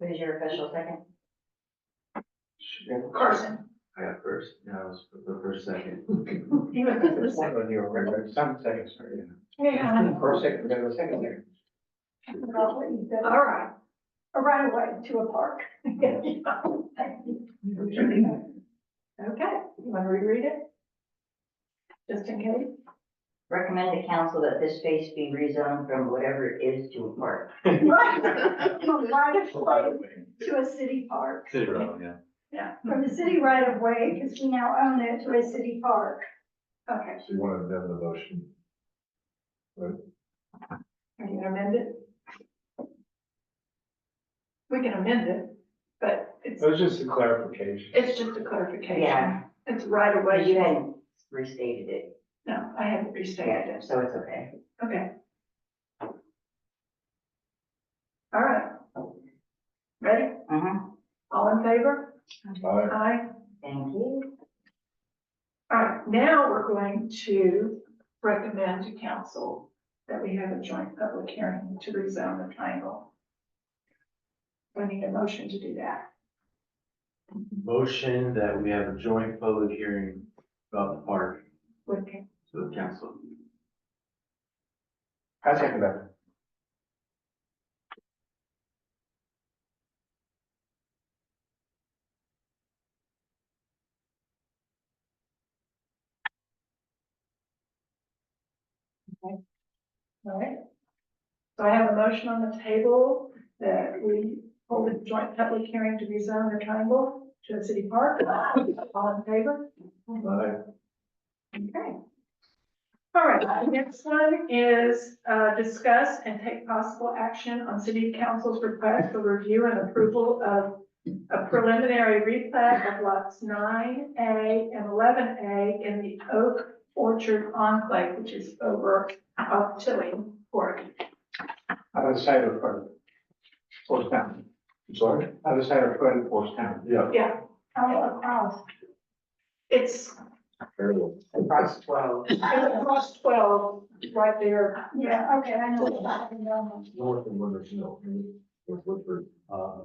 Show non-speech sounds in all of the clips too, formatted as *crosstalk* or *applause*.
Who's your official second? Carson. I got first, no, I was the first second. He was the second. When you were right, right, some seconds, sorry. Yeah. First second, then the second there. About what you said, All right. a right away to a park. *laughs* Okay, you want to reread it? Just in case. Recommend to council that this space be rezoned from whatever it is to a park. Right, from right of way to a city park. City road, yeah. Yeah, from the city right of way, because we now own it, to a city park. Okay, So you want to amend the motion? Are you gonna amend it? We can amend it, but it's, It was just a clarification. it's just a clarification. Yeah. It's right Well, away. you hadn't restated it, No, I haven't restated yeah, it. so it's okay. Okay. All right. Ready? Mhm. All in favor? Aye. Aye. Thank you. All right, now we're going to recommend to council that we have a joint public hearing to rezone the triangle. We need a motion to do that. Motion that we have a joint public hearing about the park Okay. to the council. I second that. All right. So I have a motion on the table that we hold a joint public hearing to rezone the triangle to a city park. All in favor? Aye. Okay. All right, the next one is, uh, discuss and take possible action on city council's request for review and approval of a preliminary replat of lots nine A and eleven A in the Oak Orchard enclave, which is over off Tilly Court. Other side of front, Forest Town. Sorry? Other side of front, Forest Town. Yeah. Yeah, I'll across. it's, Across twelve. it's across twelve, right there. Yeah, okay, I know. what that is. North and Woodward, no. North Woodward. Uh,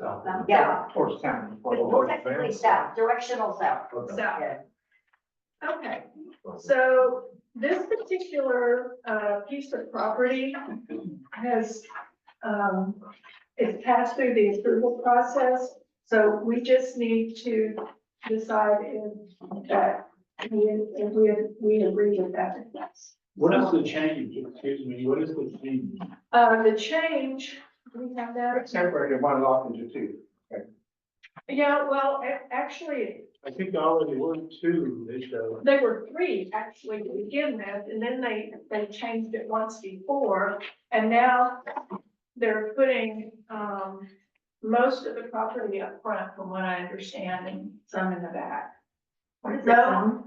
south. Yeah. Forest Town. Technically south, directional south. Okay. So, Yeah. okay. So this particular uh, piece of property has, um, it's passed through the approval process. So we just need to decide if that, we, if we, we agree with that. What is the change, excuse me, what is the change? Uh, The change, do we have that? Separated one lot into two. Yeah, well, a- actually, I think I already were two, they showed. They were three actually to begin with, and then they, they changed it once before, and now they're putting, um, most of the property up front, from what I understand, and some in the back. What is it? No.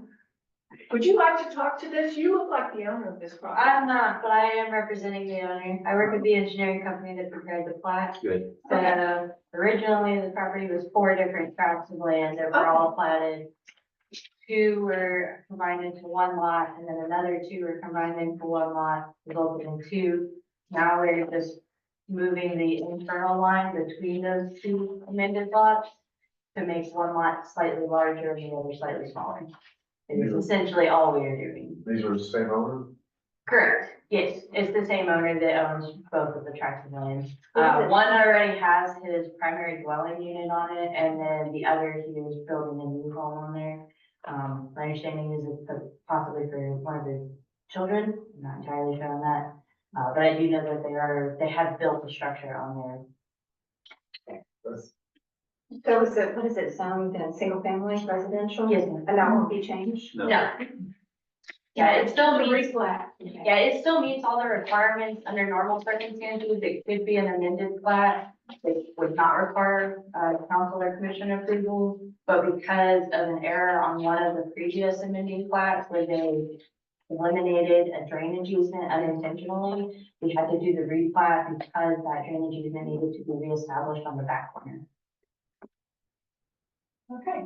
Would you like to talk to this? You look like the owner of this property. I'm not, but I am representing the owner. I work with the engineering company that prepared the plat. Good. So originally, the property was four different tracts of land that were all platted. Two were combined into one lot, and then another two were combined into one lot, resulted in two. Now we're just moving the internal line between those two amended lots to make one lot slightly larger and the other slightly smaller. It's essentially all we are doing. These are the same owner? Correct, yes, it's the same owner that owns both of the tracts of land. Uh, one already has his primary dwelling unit on it, and then the other, he was building a new home on there. Um, my understanding is it's possibly for one of his children, I'm not entirely sure on that. Uh, but I do know that they are, they have built a structure on So is it, what is it, zoned in single family residential? there. Yes, ma'am. And that won't be changed? no. Yeah, it still The meets replat. Yeah, it still meets all the requirements under normal circumstances. It could be an amended plat. It would not require, uh, council or commission approval. But because of an error on one of the previous amending plats where they eliminated a drainage easement unintentionally, we had to do the replat because that drainage easement needed to be reestablished on the back corner. Okay.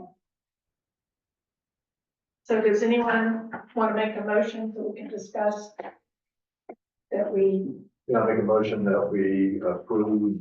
So does anyone want to make a motion so we can discuss that we Yeah, I make a motion that we approve